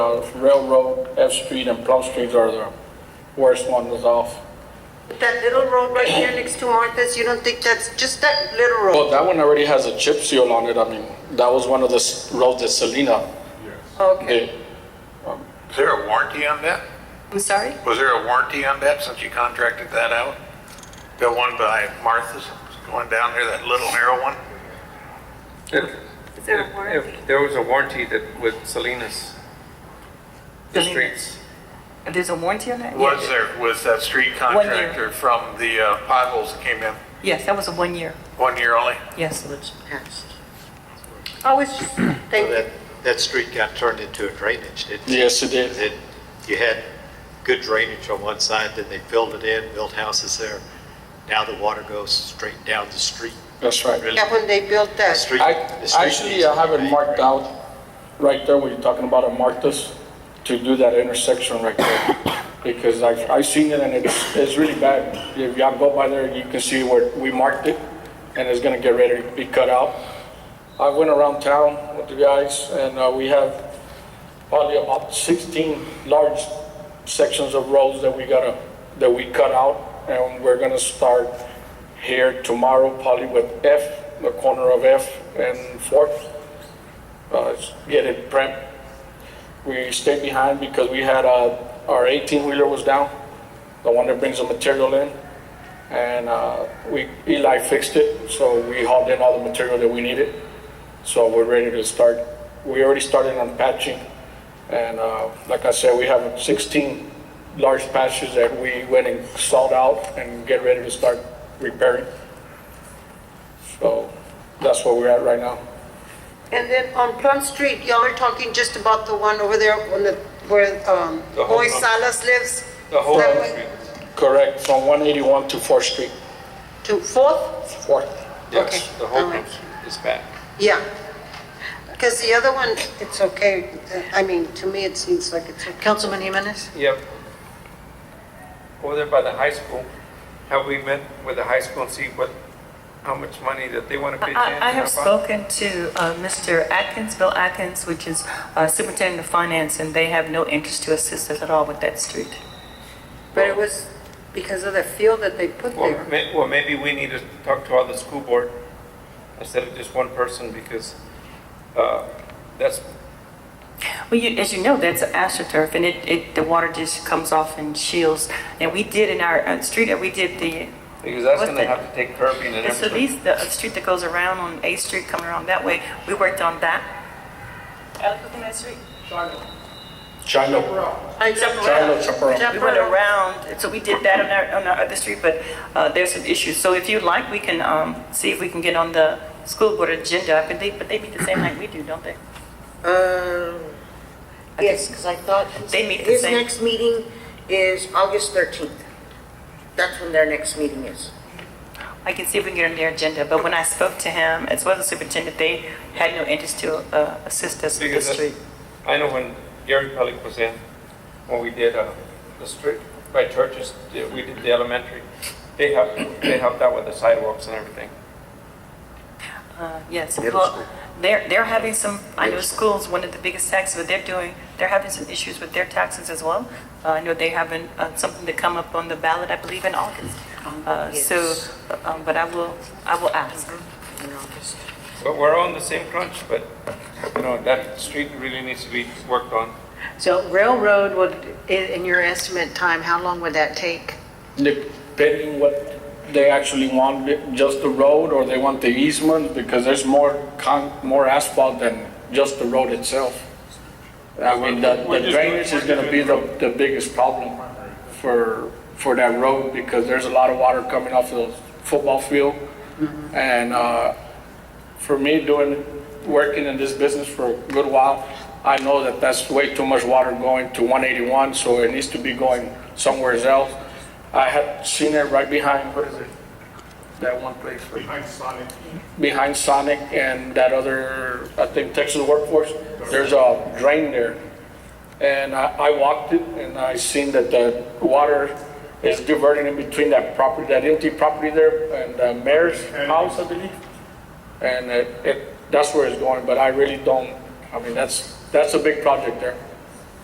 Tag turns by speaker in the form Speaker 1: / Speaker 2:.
Speaker 1: if Railroad, F Street, and Plum Street are the worst ones off.
Speaker 2: That little road right here next to Martha's, you don't think that's, just that little
Speaker 1: Well,
Speaker 2: road?
Speaker 1: that one already has a chip seal on it, I mean, that was one of the s- roads that Selena
Speaker 2: Okay,
Speaker 1: did.
Speaker 3: Is there a warranty on that?
Speaker 2: I'm sorry?
Speaker 3: Was there a warranty on that since you contracted that out? The one by Martha's, going down there, that little narrow one?
Speaker 4: If,
Speaker 2: Is there a
Speaker 4: if
Speaker 2: warranty?
Speaker 4: if there was a warranty that with Salinas, the streets,
Speaker 2: There's a warranty on that?
Speaker 3: Was there, was that street
Speaker 2: year.
Speaker 3: contractor from the uh, potholes that came in
Speaker 2: Yes, that was a one year,
Speaker 3: one year only?
Speaker 2: yes.
Speaker 5: passed.
Speaker 2: I was just
Speaker 5: So
Speaker 2: thinking,
Speaker 5: That, that street got turned into a drainage, didn't it?
Speaker 1: Yes, it did.
Speaker 5: It- You had good drainage on one side, then they filled it in, built houses there. Now the water goes straight down the street.
Speaker 1: That's right.
Speaker 5: Really,
Speaker 2: yeah, when they built
Speaker 5: the
Speaker 2: that,
Speaker 5: street-
Speaker 1: I,
Speaker 5: the street
Speaker 1: actually,
Speaker 5: needs
Speaker 1: I
Speaker 5: to
Speaker 1: have it
Speaker 5: be
Speaker 1: marked out
Speaker 5: drained.
Speaker 1: right there where you're talking about, I marked this to do that intersection right there. Because I, I seen it and it's, it's really bad. If y'all go by there, you can see where we marked it and it's gonna get ready to be cut out. I went around town with the guys and, uh, we have probably about sixteen large sections of roads that we gotta, that we cut out. And we're gonna start here tomorrow, probably with F, the corner of F and Fourth. Uh, get it prepped. We stayed behind because we had, uh, our eighteen wheeler was down, the one that brings the material in. And, uh, we, Eli fixed it, so we hauled in all the material that we needed. So we're ready to start. We already started on patching. And, uh, like I said, we have sixteen large patches that we went and sawed out and get ready to start repairing. So that's where we're at right now.
Speaker 2: and then on Plum Street, y'all are talking just about the one over there on the, where, um,
Speaker 4: The whole
Speaker 2: Boy
Speaker 4: Plum-
Speaker 2: Salas lives?
Speaker 4: the whole
Speaker 2: That
Speaker 4: street.
Speaker 2: way
Speaker 1: Correct, from 181 to 4th Street,
Speaker 2: To Fourth?
Speaker 1: 4th.
Speaker 4: Yes,
Speaker 2: Okay,
Speaker 4: the whole
Speaker 2: all right.
Speaker 4: group is back.
Speaker 2: Yeah, because the other one, it's okay. I mean, to me, it seems like it's okay.
Speaker 5: Councilman Jimenez?
Speaker 4: Yep. Over there by the high school, have we met with the high school and see what, how much money that they want to pitch in?
Speaker 6: I, I have
Speaker 4: and how much?
Speaker 6: spoken to uh, Mr. Atkins, Bill Atkins, which is uh, Superintendent of Finance, and they have no interest to assist us at all with that street.
Speaker 2: But it was because of the field that they put
Speaker 4: Well,
Speaker 2: there.
Speaker 4: may- well, maybe we need to talk to all the school board instead of just one person because, uh, that's,
Speaker 6: Well, you, as you know, that's astroturf, and it, it, the water just comes off and shields. And we did in our uh, street, uh, we did the,
Speaker 4: because that's
Speaker 6: What's
Speaker 4: going to
Speaker 6: that?
Speaker 4: have to take curbing and
Speaker 6: so
Speaker 4: everything.
Speaker 6: these, the street that goes around on A Street coming around that way, we worked on that. Alex, what's the name of that street?
Speaker 1: Chino,
Speaker 2: I jump
Speaker 1: Chino Chaparral.
Speaker 6: We went around, so we did that on our, on our other street, but uh, there's some issues. So if you'd like, we can um, see if we can get on the school board agenda, I believe, but they meet the same night we do, don't they?
Speaker 7: Yes, because I thought
Speaker 6: Um, They meet the
Speaker 7: his
Speaker 6: same-
Speaker 7: next meeting is August 13th. That's when their next meeting is.
Speaker 6: I can see if we can get on their agenda, but when I spoke to him, as well as the superintendent, they had no interest to uh, assist us with the
Speaker 4: Because that's-
Speaker 6: street.
Speaker 4: I know when Gary Pellick was in, when we did uh, the street by churches, yeah, we did the elementary, they helped, they helped out with the sidewalks and everything.
Speaker 6: Uh, Yes,
Speaker 5: Middle
Speaker 6: well,
Speaker 5: school.
Speaker 6: they're, they're having some, I know
Speaker 5: Middle
Speaker 6: schools, one of the biggest taxes, but they're doing, they're having some issues with their taxes as well. Uh, I know they haven't, uh, something to come up on the ballot, I believe, in August.
Speaker 5: Oh,
Speaker 6: Uh, So,
Speaker 7: Yes.
Speaker 6: um, but I will, I will ask.
Speaker 7: in August.
Speaker 4: But we're on the same crunch, but, you know, that street really needs to be worked on.
Speaker 5: So railroad would, in, in your estimate time, how long would that take?
Speaker 1: Depending what they actually want, just the road or they want the easement, because there's more con, more asphalt than just the road itself. I mean, the the
Speaker 4: We're just-
Speaker 1: drainage is gonna be the, the biggest problem for, for that road, because there's a lot of water coming off the football field. And, uh, for me, doing, working in this business for a good while, I know that that's way too much water going to 181, so it needs to be going somewhere else. I had seen it right behind, what is it? That one place. Behind Sonic. Behind Sonic and that other, I think Texas Workforce, there's a drain there. And I, I walked it and I seen that the water is diverting in between that property, that empty property there and the mayor's house, I believe. And it, it, that's where it's going, but I really don't, I mean, that's, that's a big project there.